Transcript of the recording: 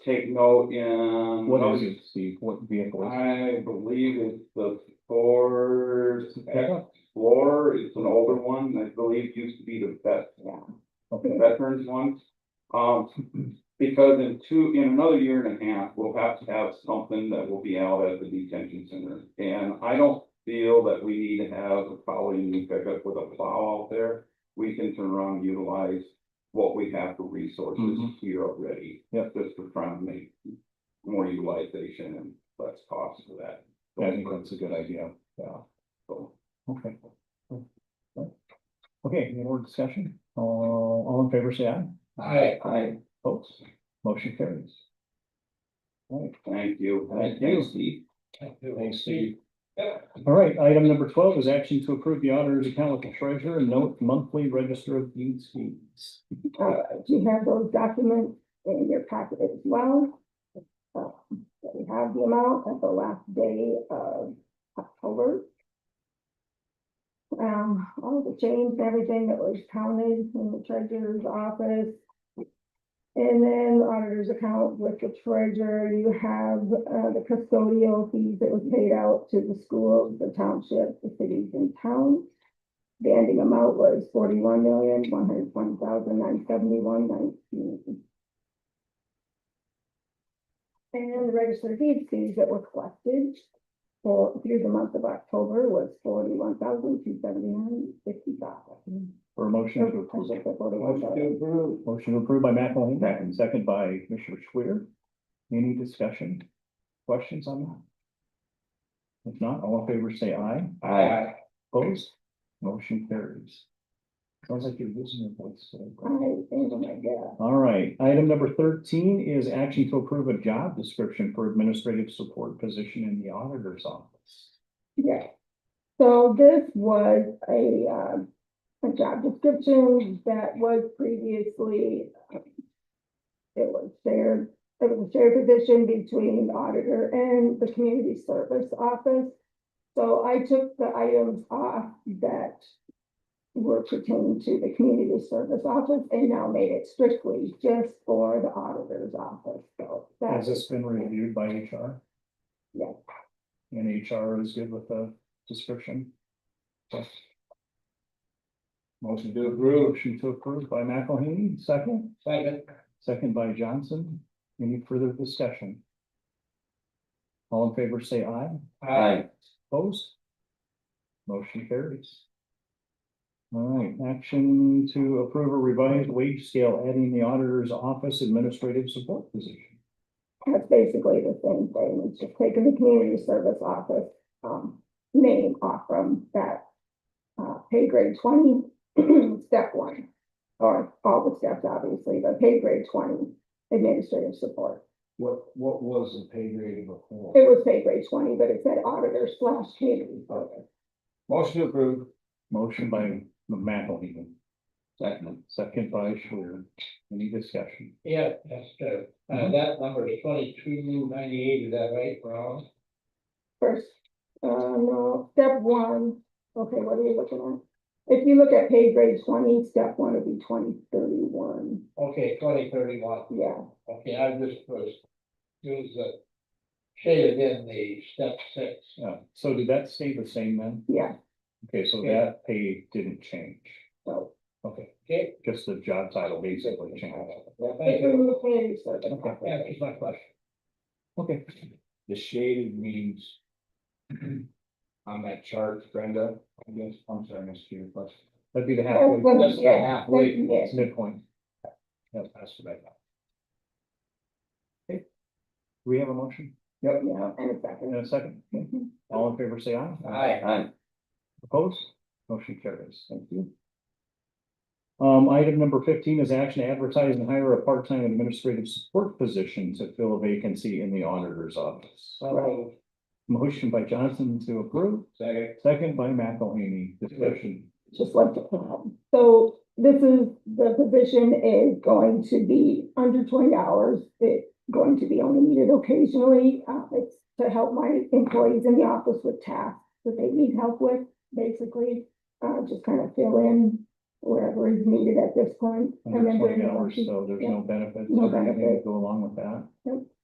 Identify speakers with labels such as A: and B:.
A: take note in.
B: What is it, Steve? What vehicle is
A: I believe it's the Ford
B: it?
A: Explorer, it's an older one, I believe used to be the best one, the
B: Okay.
A: veterans one. Um, because in two, in another year and a half, we'll have to have something that will be out at the detention center. And I don't feel that we need to have probably a new pickup with a plow out there. We can turn around and utilize what we have for resources
B: Mhm.
A: here already.
B: Yep.
A: Just to try and make more utilization and less cost for that.
B: Yeah, I think that's a good idea, yeah,
A: So,
B: okay. Okay, any more discussion? Uh, all in favor, say aye.
C: Aye.
B: Aye. Folks, motion carries. All
A: Thank you.
B: Thank you.
A: Thanks, Steve.
B: Thanks, Steve. right, item number twelve is action to approve the auditor's account with the treasurer and note monthly register of deeds fees.
D: Uh, you have those documents in your packet as well. Uh, We have the amount at the last day of October. Um, all the change, everything that was counted in the treasurer's office. And then the auditor's account with the treasurer, you have, uh, the custodial fees that was paid out to the schools, the township, the cities and towns. The ending amount was forty-one million, one hundred one thousand, nine seventy-one, nineteen. And the registered deed fees that were collected for, through the month of October was forty-one thousand, two seventy-nine, fifty-five.
B: For a motion to approve. Motion approved by McElhany, and second by Commissioner Schwer. Any discussion, questions on that? If not, all in favor, say aye.
C: Aye.
B: Opposed? Motion carries. Sounds like you're losing your voice.
D: I,
B: so-
D: oh my God,
B: All right, item number thirteen is action to approve a job description for administrative support position in the auditor's office.
D: yeah. So this was a, um, a job description that was previously. um, It was shared, it was a shared position between the auditor and the community service office. So I took the items off that. Were pertaining to the community service office and now made it strictly just for the auditor's office, so.
B: Has
D: that's
B: this been reviewed by HR?
D: Yes.
B: And HR is good with the description? Yes. Motion to approve. Motion to approve by McElhaney, second,
C: Second.
B: second by Johnson. Any further discussion? All in favor, say aye.
C: Aye.
B: Opposed? Motion carries. All right, action to approve a revised wage scale adding the auditor's office administrative support position.
D: That's basically the same thing, it's just taking the community service office, um, name off from that. Uh, pay grade twenty, step one, or all the steps obviously, but pay grade twenty administrative support.
C: What, what was the pay grade before?
D: It was pay grade twenty, but it said auditor slash community service.
C: Motion approved.
B: Motion by McElhenney. Second. Second by Schwer. Any discussion?
C: Yeah, that's true. Uh, that number is twenty-two ninety-eight, is that right, Ron?
D: First, uh, no, step one, okay, what are you looking at? If you look at pay grade twenty, step one would be twenty thirty-one,
C: Okay, twenty thirty-one.
D: yeah.
C: Okay, I just was, use the shaded in the step six.
B: Yeah, Uh, so did that stay the same then?
D: Yeah.
B: Okay, so that pay didn't change.
D: No.
B: Okay,
C: Okay?
B: just the job title basically changed.
C: Yeah, thank
D: It's
C: you.
D: in the community service office.
C: Yeah, That's my question.
B: Okay,
E: The shaded means. On that chart, Brenda, I guess, I'm sorry, Mr. Chair, but
B: that'd be the
D: That's
B: halfway,
D: what-
E: That's the
D: yeah,
E: halfway
D: that's-
E: point.
D: yeah.
B: midpoint.
E: that's what I thought.
B: Do we have a motion? Yep.
D: Yeah, and a second.
B: In a second. All in favor, say aye.
C: Aye.
B: Opposed? Motion carries. Thank you. Um, item number fifteen is action to advertise and hire a part-time administrative support position to fill a vacancy in the auditor's office.
D: Right.
B: Motion by Johnson to approve,
E: Second,
B: second by McElhaney. Discussion.
D: Just like the plan. So this is, the position is going to be under twenty hours. It's going to be only needed occasionally. Uh, it's to help my employees in the office with tasks that they need help with, basically. Uh, just kind of fill in wherever is needed at this point.
B: Under
D: And then
B: twenty
D: during the
B: hours,
D: lunch-
B: so there's no benefits
D: No
B: or anything
D: benefit.
B: to go along with that.